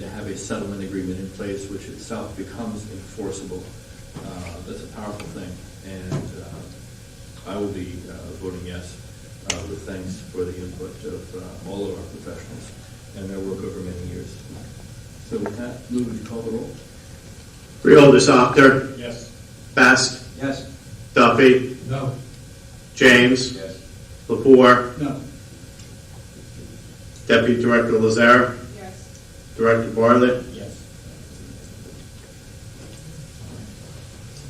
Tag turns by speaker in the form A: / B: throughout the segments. A: to have a settlement agreement in place, which itself becomes enforceable. Uh, That's a powerful thing, and uh, I will be uh, voting yes uh, with thanks for the input of uh, all of our professionals and their work over many years. So with that, Lou, would you call the roll?
B: Freeholders, Actor,
C: Yes.
B: Best,
C: Yes.
B: Duffy,
C: No.
B: James,
C: Yes.
B: Lepore,
C: No.
B: Deputy Director Lazare,
D: Yes.
B: Director Bartlett,
C: Yes.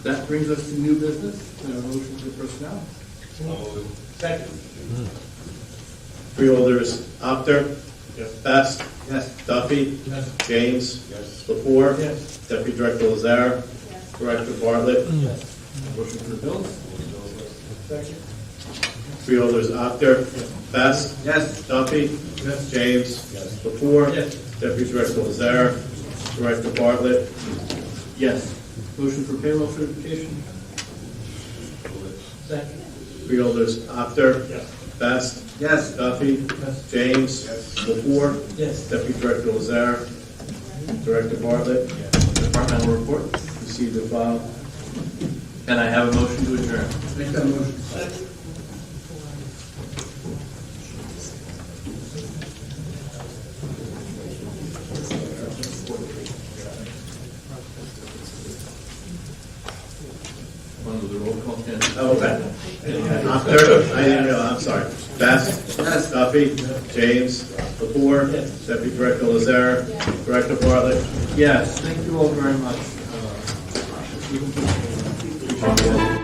A: That brings us to new business, uh, motion for personnel.
C: Second.
B: Freeholders, Actor,
C: Yes.
B: Best,
C: Yes.
B: Duffy,
C: Yes.
B: James,
C: Yes.
B: Lepore,
C: Yes.
B: Deputy Director Lazare,
D: Yes.
B: Director Bartlett,
A: Motion for the bills?
C: Second.
B: Freeholders, Actor, Best,
C: Yes.
B: Duffy,
C: Yes.
B: James,
C: Yes.
B: Lepore,
C: Yes.
B: Deputy Director Lazare, Director Bartlett,
A: Yes. Motion for payroll certification?
C: Second.
B: Freeholders, Actor,
C: Yes.
B: Best,
C: Yes.
B: Duffy,
C: Yes.
B: James, Lepore,
C: Yes.
B: Deputy Director Lazare, Director Bartlett,
A: Departmental report?
B: received and filed.
A: And I have a motion to adjourn.
C: Make that motion.
A: One with the roll call, Ken?
B: Oh, okay. Actor, I didn't know, I'm sorry. Best, Duffy, James, Lepore, Deputy Director Lazare, Director Bartlett,
A: Yes, thank you all very much. Uh, we can-